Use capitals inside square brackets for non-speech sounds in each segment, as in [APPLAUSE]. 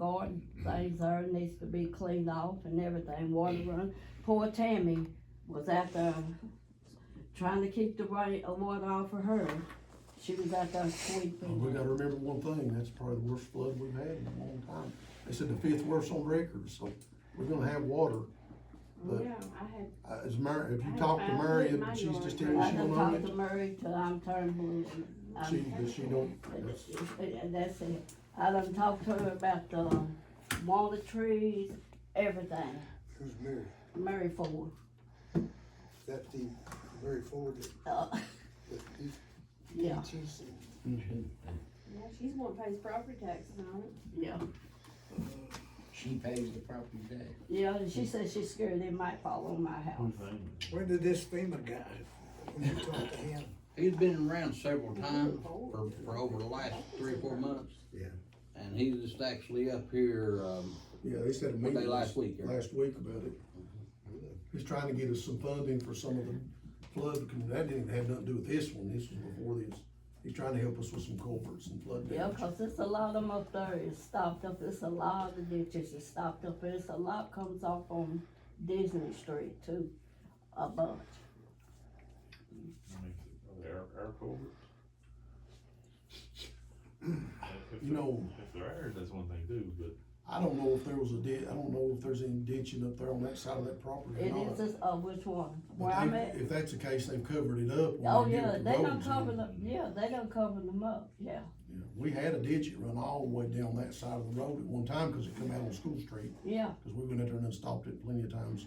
garden things there needs to be cleaned off and everything, water run. Poor Tammy was out there trying to keep the rain, uh, water off of her. She was out there Well, Oh, We sweeping. gotta remember one thing, that's probably the worst flood we've had in a long time. They said the fifth worst on record, so we're gonna have water. But Yeah, I had, uh, as Mary, if I you talk to found Mary, it in my she's just telling you I she done don't own talked it, to Murray till I'm turned blue. um, she, I'm- but she don't, that's, And uh, that's it. I done talked to her about the water trees, everything. Who's Mary? Murray Ford. That the Mary Ford that, Uh, that he yeah, teaches and yeah, she's one pays property taxes on it. yeah. She pays the property tax. Yeah, and she said she's scared they might fall on my house. When did this FEMA guy, when you talked to him? He's been around several times for, for over the last three, or four months. Yeah. And he was actually up here, um, yeah, they said a What day meeting last week, yeah? last week about it. He's trying to get us some funding for some of the flood, because that didn't have nothing to do with this one, this was before this. He's trying to help us with some culverts and flood Yeah, damage. 'cause it's a lot of them up there is stopped up. It's a lot of ditches is stopped up. It's a lot comes off on Disney Street too, a bunch. Air, air culverts. If You know- they're- If they're aired, that's one thing too, but I don't know if there was a ditch, I don't know if there's any ditching up there on that side of that property or It not. is just, uh, which one? But Where I'm they- at? If that's the case, they've covered it up. when Oh, they get yeah, with the they done roads in. covered them, yeah, they done covered them up, yeah, Yeah, We had a ditch that run all the way down that side of the road at one time, cause it come out on School Street, yeah. cause we went out there and stopped it plenty of times.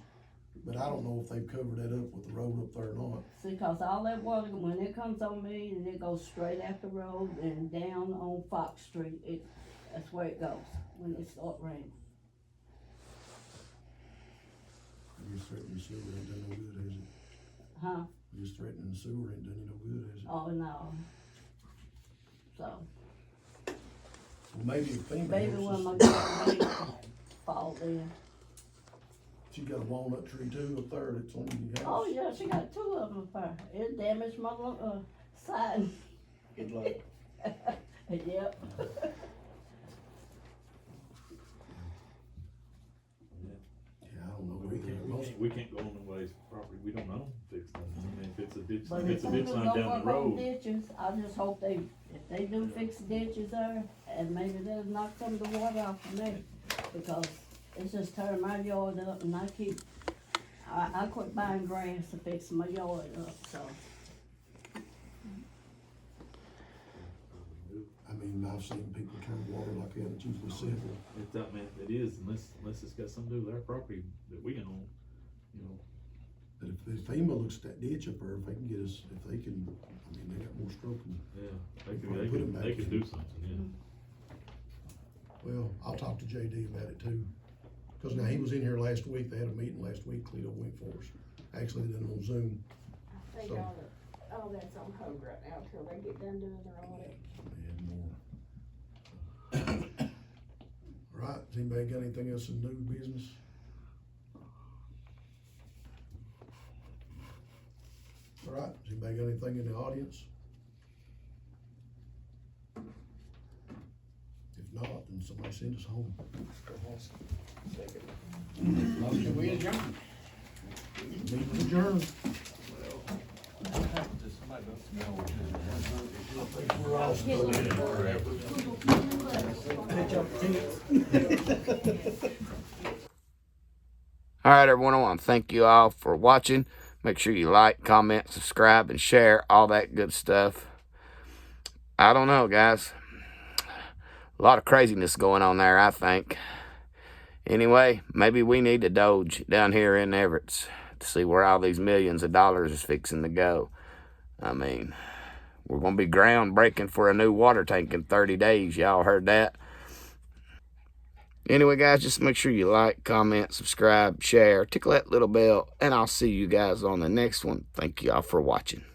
But I don't know if they've covered that up with the road up there or not. See, 'cause all that water, when it comes on me, and it goes straight out the road and down on Fox Street, it, that's where it goes when it start raining. You threatening sewer ain't done no good, has it? Huh? You threatening sewer ain't done you no good, has it? Oh, no. So, Well, Maybe if FEMA maybe helps when my us. grandbaby fall in. She got a walnut tree too up there that's on your house. Oh, yeah, she got two of them up there. It damaged my, uh, side. good luck. [LAUGHS] Yep. Yeah, I don't know. we can't, we Most- can't, we can't go on the ways property, we don't own fix them. I mean, if it's a ditch, But if if it's a people ditch don't line down work the on road, ditches, I just hope they, if they do fix ditches there, and maybe they'll knock some of the water off of me, because it's just tearing my yard up, and I keep, I, I quit buying grass to fix my yard up, so. I mean, I've seen people turn water like that, it's usually civil. it's, I mean, it is, unless, unless it's got something to do with our property that we own, you know. But if, if FEMA looks at that ditch up there, if they can get us, if they can, I mean, they got more stroke than, Yeah, they Well, could, they put it could, back they could in. do something, yeah. well, I'll talk to JD about it too. Cause now he was in here last week, they had a meeting last week, Cleto went for us. Actually, they done it on Zoom. I think So- all that, all that's on hold right now till they get done doing their audit. They had more. All right, has anybody got anything else in new business? All right, has anybody got anything in the audience? If not, then somebody send us home. Motion, we adjourn. Meeting adjourned. All right, everyone, I want to thank you all for watching. Make sure you like, comment, subscribe, and share all that good stuff. I don't know, guys. A lot of craziness going on there, I think. Anyway, maybe we need to doge down here in Everett's to see where all these millions of dollars is fixing to go. I mean, we're going to be groundbreaking for a new water tank in 30 days. Y'all heard that? Anyway, guys, just make sure you like, comment, subscribe, share, tickle that little bell, and I'll see you guys on the next one. Thank you all for watching.